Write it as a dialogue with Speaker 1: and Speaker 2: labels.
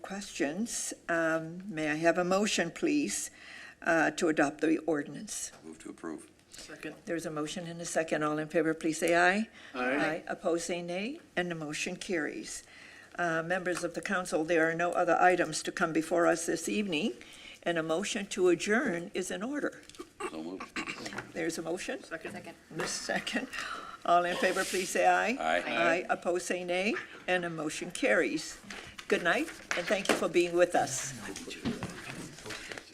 Speaker 1: questions. Um, May I have a motion, please, uh, to adopt the ordinance?
Speaker 2: Move to approve.
Speaker 3: Second.
Speaker 1: There's a motion and a second. All in favor, please say aye.
Speaker 3: Aye.
Speaker 1: Opposed, say nay, and the motion carries. Uh, Members of the council, there are no other items to come before us this evening, and a motion to adjourn is in order.
Speaker 2: So moved.
Speaker 1: There's a motion?
Speaker 3: Second.
Speaker 1: Miss Second. All in favor, please say aye.
Speaker 2: Aye. Aye.
Speaker 1: Aye, opposed, say nay, and a motion carries. Good night, and thank you for being with us.